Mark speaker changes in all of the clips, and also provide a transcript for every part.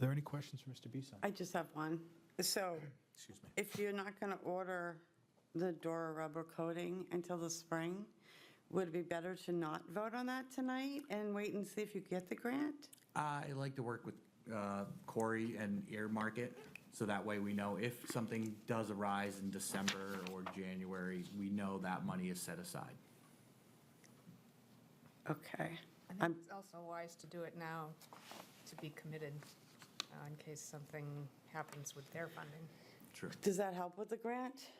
Speaker 1: there any questions for Mr. Bisson?
Speaker 2: I just have one. So
Speaker 1: Excuse me.
Speaker 2: if you're not going to order the Dora rubber coating until the spring, would it be better to not vote on that tonight and wait and see if you get the grant?
Speaker 3: I like to work with uh, Corey and earmark it, so that way we know if something does arise in December or January, we know that money is set aside.
Speaker 2: Okay.
Speaker 4: I
Speaker 2: I'm-
Speaker 4: think it's also wise to do it now, to be committed, uh, in case something happens with their funding.
Speaker 3: True.
Speaker 2: Does that help with the grant?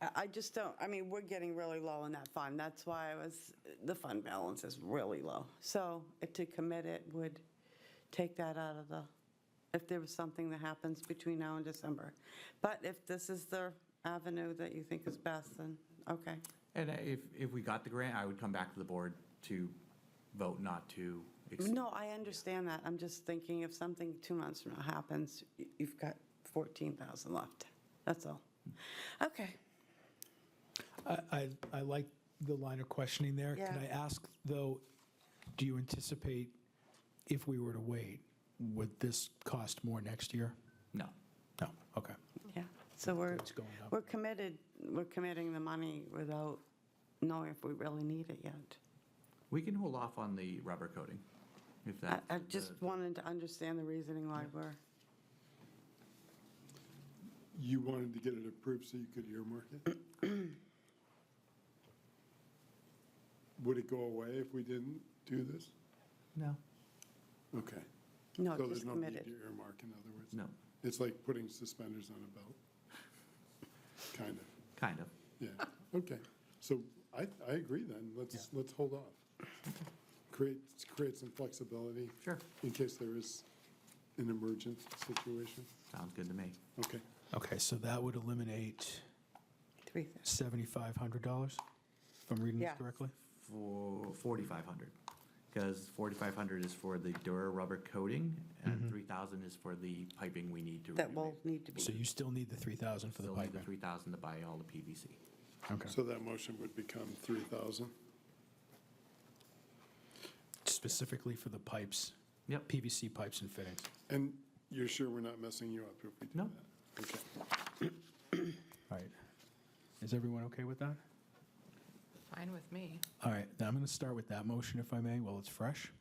Speaker 2: I I just don't, I mean, we're getting really low in that fund. That's why I was, the fund balance is really low. So if to commit it would take that out of the, if there was something that happens between now and December. But if this is the avenue that you think is best, then, okay.
Speaker 3: And if, if we got the grant, I would come back to the board to vote not to. ex-
Speaker 2: No, I understand that. I'm just thinking if something two months from now happens, y- you've got 14,000 left. That's all. Okay.
Speaker 5: I, I I like the line of questioning there. Can
Speaker 2: Yeah.
Speaker 5: I ask, though, do you anticipate if we were to wait, would this cost more next year?
Speaker 3: No.
Speaker 5: No, okay.
Speaker 2: Yeah, so we're,
Speaker 5: It's going up.
Speaker 2: we're committed, we're committing the money without knowing if we really need it yet.
Speaker 3: We can hold off on the rubber coating, if
Speaker 2: I,
Speaker 3: that.
Speaker 2: I just wanted to understand the reasoning why we're,
Speaker 6: You wanted to get it approved so you could earmark it? Would it go away if we didn't do this?
Speaker 3: No,
Speaker 6: Okay.
Speaker 2: no,
Speaker 6: So
Speaker 2: just
Speaker 6: there's no need to
Speaker 2: committed.
Speaker 6: earmark, in other words?
Speaker 3: No.
Speaker 6: It's like putting suspenders on a belt. Kind of,
Speaker 3: kind of.
Speaker 6: yeah, okay. So I, I agree then, let's, let's hold off. Create, create some flexibility.
Speaker 3: Sure.
Speaker 6: In case there is an emergent situation.
Speaker 3: Sounds good to me.
Speaker 6: Okay,
Speaker 5: Okay, so that would eliminate
Speaker 2: Three thou-
Speaker 5: $7,500, if I'm reading
Speaker 2: Yeah.
Speaker 5: this correctly?
Speaker 3: for 4,500, because 4,500 is for the Dura rubber coating,
Speaker 5: Mm-hmm.
Speaker 3: and 3,000 is for the piping we need to.
Speaker 2: That will need to
Speaker 5: So
Speaker 2: be,
Speaker 5: you still need the 3,000 for the
Speaker 3: Still need the
Speaker 5: piping?
Speaker 3: 3,000 to buy all the PVC.
Speaker 5: Okay.
Speaker 6: so that motion would become 3,000?
Speaker 5: Specifically for the pipes?
Speaker 3: Yep.
Speaker 5: PVC pipes and fittings.
Speaker 6: And you're sure we're not messing you up if we do
Speaker 3: No.
Speaker 6: that? Okay.
Speaker 5: All right. Is everyone okay with that?
Speaker 4: Fine with me.
Speaker 5: All right, now I'm going to start with that motion, if I may, while it's fresh.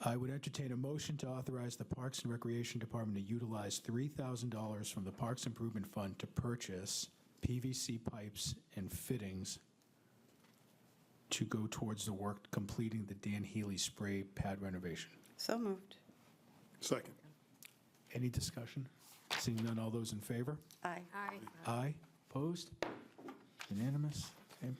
Speaker 5: I would entertain a motion to authorize the Parks and Recreation Department to utilize $3,000 from the Parks Improvement Fund to purchase PVC pipes and fittings to go towards the work completing the Dan Healy spray pad renovation.
Speaker 2: so moved.
Speaker 6: Second.
Speaker 5: Any discussion? Seeing none, all those in favor?
Speaker 2: Aye.
Speaker 4: Aye.
Speaker 5: Aye. Opposed? Unanimous? Okay.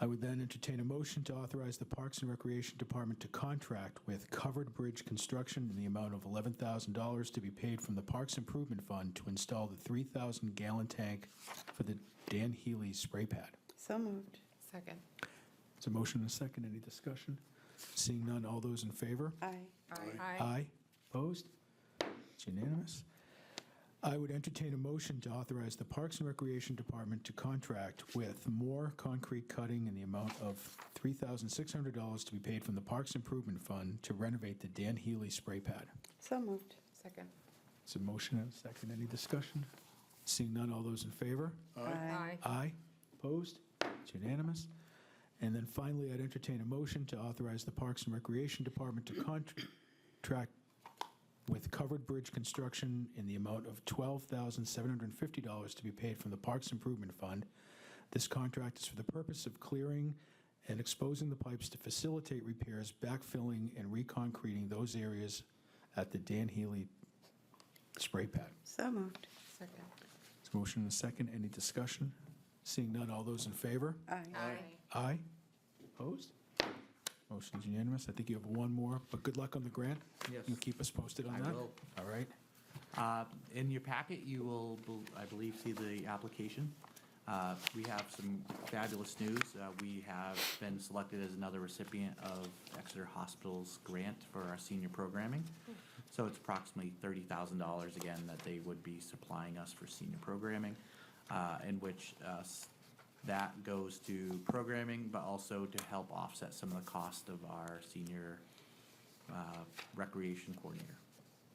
Speaker 5: I would then entertain a motion to authorize the Parks and Recreation Department to contract with Covered Bridge Construction in the amount of $11,000 to be paid from the Parks Improvement Fund to install the 3,000-gallon tank for the Dan Healy spray pad.
Speaker 2: So moved.
Speaker 4: Second.
Speaker 5: It's a motion and a second. Any discussion? Seeing none, all those in favor?
Speaker 2: Aye.
Speaker 5: Aye. Opposed? It's unanimous. I would entertain a motion to authorize the Parks and Recreation Department to contract with more concrete cutting in the amount of $3,600 to be paid from the Parks Improvement Fund to renovate the Dan Healy spray pad.
Speaker 2: So moved.
Speaker 4: Second.
Speaker 5: It's a motion and a second. Any discussion? Seeing none, all those in favor?
Speaker 4: Aye.
Speaker 5: Aye. Opposed? It's unanimous. And then finally, I'd entertain a motion to authorize the Parks and Recreation Department to contract with Covered Bridge Construction in the amount of $12,750 to be paid from the Parks Improvement Fund. This contract is for the purpose of clearing and exposing the pipes to facilitate repairs, backfilling, and reconcreting those areas at the Dan Healy spray pad.
Speaker 2: So moved.
Speaker 4: Second.
Speaker 5: There's a motion and a second. Any discussion? Seeing none, all those in favor?
Speaker 2: Aye.
Speaker 4: Aye.
Speaker 5: Aye. Opposed? Motion's unanimous. I think you have one more, but good luck on the grant.
Speaker 3: Yes.
Speaker 5: You keep us posted on
Speaker 3: I
Speaker 5: that?
Speaker 3: will.
Speaker 5: All right.
Speaker 3: Uh, In your packet, you will, bel- I believe, see the application. Uh, We have some fabulous news. Uh, We have been selected as another recipient of Exeter Hospital's grant for our senior programming. So it's approximately $30,000 again that they would be supplying us for senior programming, uh, in which uh, s- that goes to programming, but also to help offset some of the cost of our senior uh, recreation coordinator.